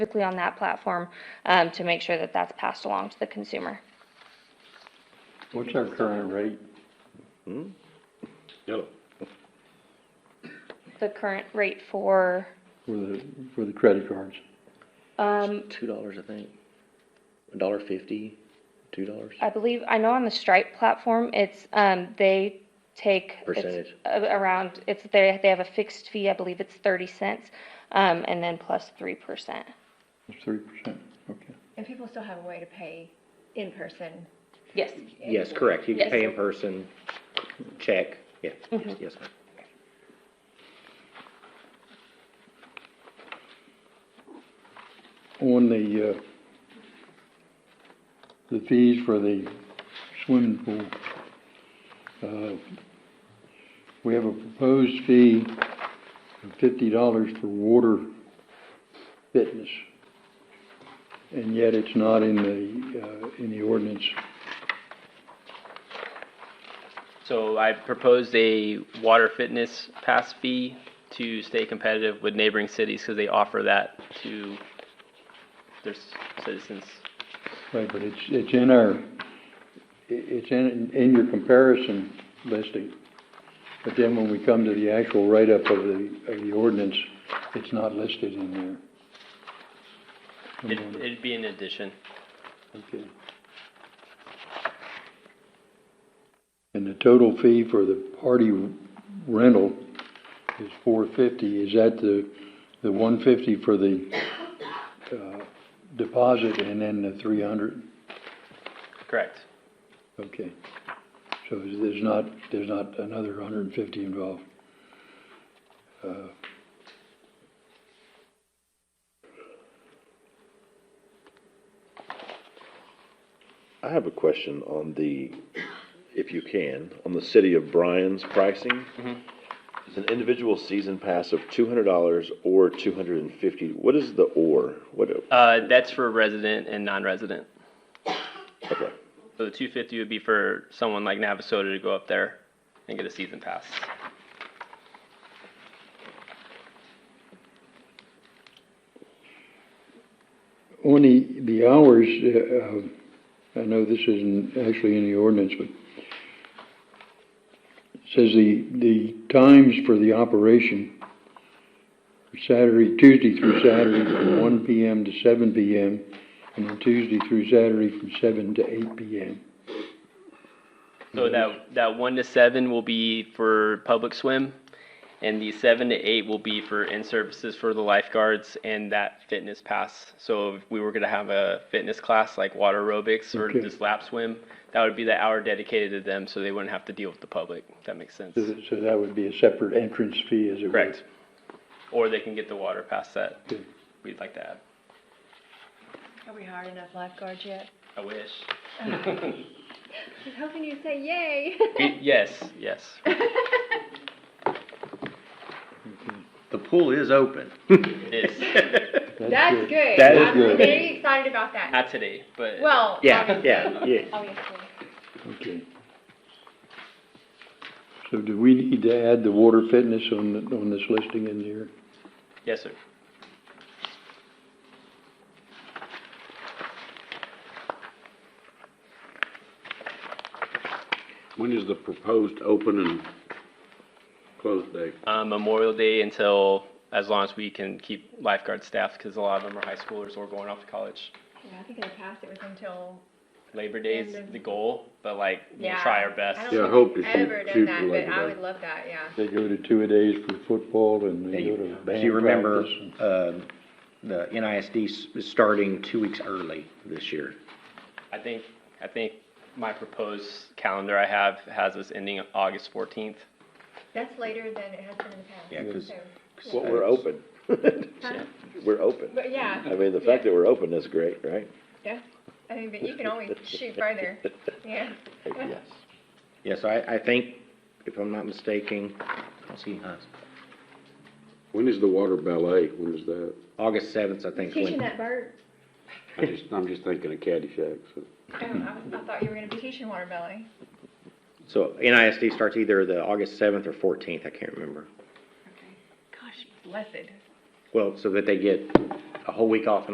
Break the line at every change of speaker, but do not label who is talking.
specifically on that platform um, to make sure that that's passed along to the consumer.
What's our current rate?
Yellow.
The current rate for,
For the, for the credit cards.
um,
Two dollars, I think. A dollar fifty, two dollars.
I believe, I know on the Stripe platform, it's, um, they take. it's
Percentage.
a- Around, it's, they, they have a fixed fee, I believe it's thirty cents, um, and then plus three percent.
It's three percent, okay.
And people still have a way to pay in person.
Yes.
Yes, correct. You
Yes.
can pay in person, check, yeah, yes, yes, ma'am.
On the, uh, the fees for the swimming pool, uh, we have a proposed fee of fifty dollars for water fitness. And yet it's not in the, uh, in the ordinance.
So I proposed a water fitness pass fee to stay competitive with neighboring cities because they offer that to their s- citizens.
Right, but it's, it's in our, i- it's in, in your comparison listing. But then when we come to the actual write-up of the, of the ordinance, it's not listed in there.
It'd, it'd be an addition.
Okay. And the total fee for the party rental is four fifty, is that the, the one fifty for the, uh, deposit and then the three hundred?
Correct.
Okay. So there's not, there's not another hundred and fifty involved? Uh,
I have a question on the, if you can, on the city of Bryan's pricing.
Mm-hmm.
It's an individual season pass of two hundred dollars or two hundred and fifty, what is the or? What,
Uh, that's for resident and non-resident.
okay,
So the two fifty would be for someone like Navasota to go up there and get a season pass.
On the, the hours, uh, uh, I know this isn't actually in the ordinance, but it says the, the times for the operation, Saturday, Tuesday through Saturday from one PM to seven PM, and then Tuesday through Saturday from seven to eight PM.
So that, that one to seven will be for public swim, and the seven to eight will be for in-services for the lifeguards and that fitness pass. So if we were gonna have a fitness class like water aerobics or
Okay.
just lap swim, that would be the hour dedicated to them, so they wouldn't have to deal with the public. if That makes sense.
So that, so that would be a separate entrance fee, as it were.
Correct. Or they can get the water pass that
Good.
we'd like to have.
Have we hired enough lifeguards yet?
I wish.
I was hoping you'd say yay.
Y- Yes, yes.
The pool is open.
It is.
That's good.
That is
I'm
good.
very excited about that.
Not today, but.
Well,
Yeah, yeah, yeah.
obviously.
Okay. So do we need to add the water fitness on, the- on this listing in here?
Yes, sir.
When is the proposed open and close date?
uh, Memorial Day until as long as we can keep lifeguard staff because a lot of them are high schoolers or going off to college.
Yeah, I think in the past it was until.
Labor Day is
And then-
the goal, but like we'll
Yeah.
try our
I
best.
don't
Yeah, I
think
hope
we've
to shoot-
Ever done
shoot
that,
for
but
Labor
I
Day.
would love that, yeah.
They go to two-a-days for football and they go to band
Do you remember,
practice and-
um, the NISD s- is starting two weeks early this year?
I think I think my proposed calendar I have has us ending August 14th.
That's later than it has been in the past.
Yeah, 'cause-
so-
Well, we're open. We're open.
But yeah.
I mean, the fact that we're open is great, right?
Yeah, I mean, but you can always shoot further, yeah.
Yes.
Yes, I, I think, if I'm not mistaken, I see, huh,
When is the water ballet? When is that?
August seventh, I think. is
Teaching
when-
that bird,
I just, I'm just thinking of Caddyshack, so.
oh, I, was- I thought you were gonna be teaching water ballet.
So NISD starts either the August seventh or fourteenth, I can't remember.
Gosh, blessed.
Well, so that they get a whole week off in